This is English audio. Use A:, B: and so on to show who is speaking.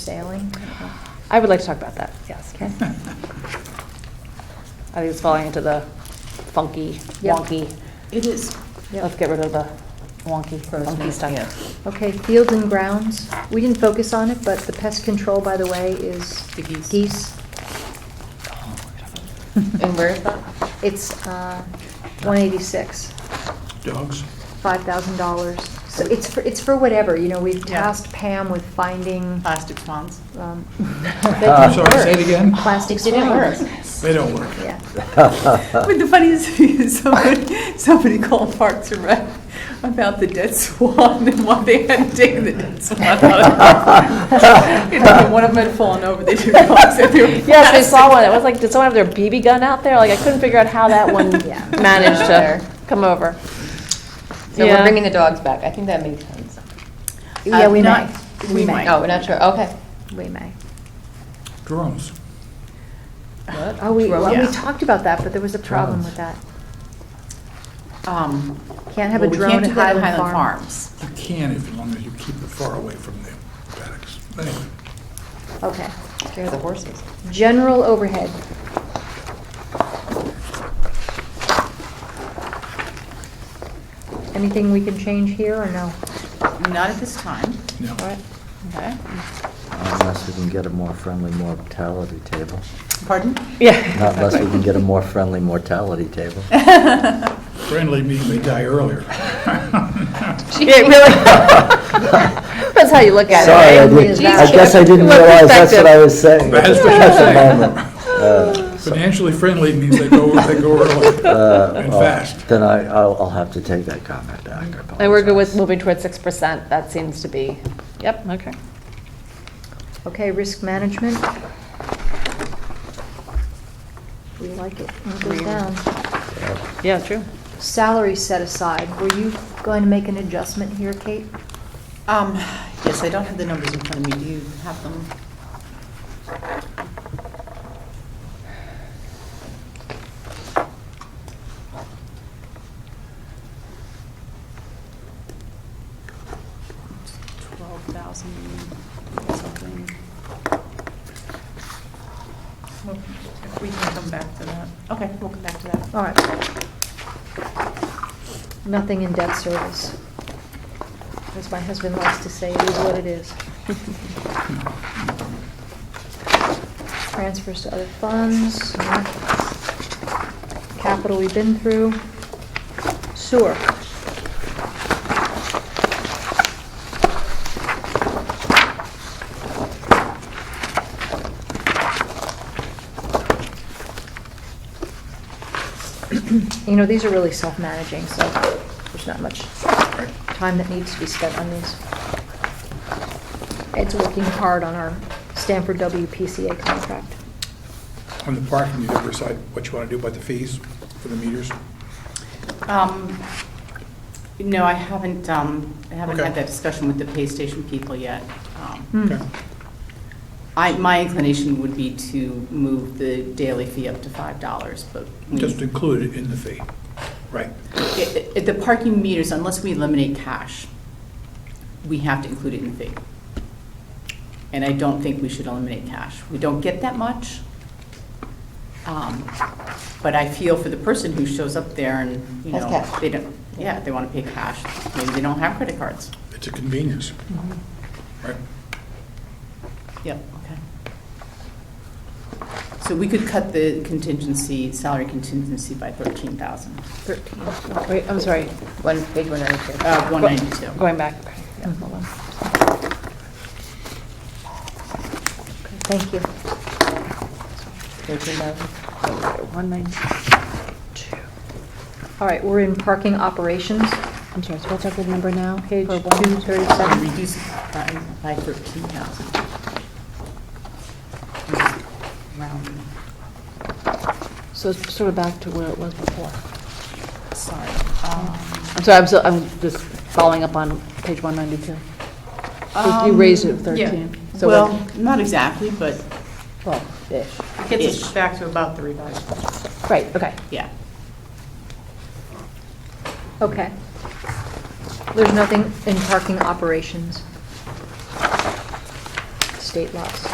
A: sailing?
B: I would like to talk about that, yes.
A: Okay.
B: I think it's falling into the funky,
A: Yep.
B: wonky.
C: It is.
A: Yep.
B: Let's get rid of the wonky, funky
C: Grossman, yeah.
B: stuff.
A: Okay, fields and grounds. We didn't focus on it, but the pest control, by the way, is
C: The geese.
A: geese.
C: And where is that?
A: It's uh, 186,
D: Dogs?
A: $5,000. So it's for, it's for whatever, you know, we've
C: Yeah.
A: tasked Pam with finding.
C: Plastic swans.
A: um,
D: I'm Uh, sorry, say it again?
A: Plastic
C: It Uh, didn't work. Uh,
A: swans.
D: They don't work.
A: Yeah.
C: But the funniest thing is somebody, somebody called Parks and Rec about the dead swan and why they hadn't taken the dead swan out. You know, One of them had fallen over, they took it off, said they were.
B: Yes, I saw one. It was like, did someone have their BB gun out there? Like, I couldn't figure out how that one
A: Yeah.
B: managed to come over.
E: So
B: Yeah.
E: we're bringing the dogs back. I think that makes sense.
A: Yeah, we may.
C: not- we might.
E: Oh, we're not sure. Okay.
A: We may.
D: Drones.
A: Oh, we, well, we
C: Yeah.
A: talked about that, but there was a problem with that.
C: Um,
A: Can't have a
C: well, we
A: drone
C: can't
A: at
C: do that
A: Highland Farm.
C: Farms.
D: You can if, as long as you keep it far away from the paddocks. Anyway,
A: Okay.
E: Here are the horses.
A: General overhead. Anything we can change here or no?
C: Not at this time.
D: no.
A: All right.
C: Okay.
F: Unless we can get a more friendly mortality table.
C: Pardon?
B: Yeah.
F: Not unless we can get a more friendly mortality table.
D: Friendly means they die earlier.
B: Yeah, it really. That's how you look at it,
F: Sorry, I
B: right?
A: Friendly is
F: didn't, I
A: bad.
F: guess I didn't
B: What
F: realize that's what I was saying.
D: That's what
F: At the
D: you're saying.
F: moment. Uh,
D: Financially friendly means they go, they go
F: uh,
D: early and
F: well,
D: fast.
F: Then I, I'll I'll have to take that comment back. I
B: And we're good with
F: apologize.
B: moving towards six percent. That seems to be, yep, okay.
A: Okay, risk management. We like it. It goes down.
B: Yeah, true.
A: Salary set aside. Were you going to make an adjustment here, Kate?
C: Um, yes, I don't have the numbers in front of me. Do you have them? Twelve thousand something. Well, If we can come back to that. Okay, we'll come back to that.
A: All right. Nothing in debt service. As my husband likes to say, it is what it is. Transfers to other funds, no. capital we've been through, sewer. You know, these are really self-managing, so there's not much time that needs to be spent on these. Ed's working hard on our Stanford WPCA contract.
D: On the parking, you ever decide what you want to do about the fees for the meters?
C: Um, No, I haven't, um, I haven't
D: Okay.
C: had that discussion with the pay station people yet. Um,
A: Hmm.
D: Okay.
C: I, my inclination would be to move the daily fee up to $5, but we-
D: Just include it in the fee. Right.
C: i- i- the parking meters, unless we eliminate cash, we have to include it in the fee. And I don't think we should eliminate cash. We don't get that much. Um, But I feel for the person who shows up there and, you
E: Has
C: know,
E: cash.
C: they don't, yeah, they want to pay cash. Maybe they don't have credit cards.
D: It's a convenience.
A: Mm-hmm.
D: Right.
C: Yep, okay. So we could cut the contingency, salary contingency by 13,000,
B: Wait, I'm sorry,
E: One page, one ninety two.
C: uh, 192.
B: going back. Okay, yeah, hold on.
A: Thank you.
E: Thirteen thousand.
B: One ninety-two.
A: All right, we're in parking operations.
B: I'm sorry, so what's our good number now? Page
A: For
B: two
C: Uh,
B: thirty-seven.
C: Reduce by by 13,000. Round,
B: So it's sort of back to where it was before.
C: sorry. Um,
B: I'm sorry, I'm so, I'm just following up on page one ninety-two. You raised it
C: um, yeah.
B: 13, so
C: Well, not exactly, but
B: Well, ish.
C: it gets us back to about the revised,
B: Right, okay.
C: yeah.
A: Okay. There's nothing in parking operations. state laws.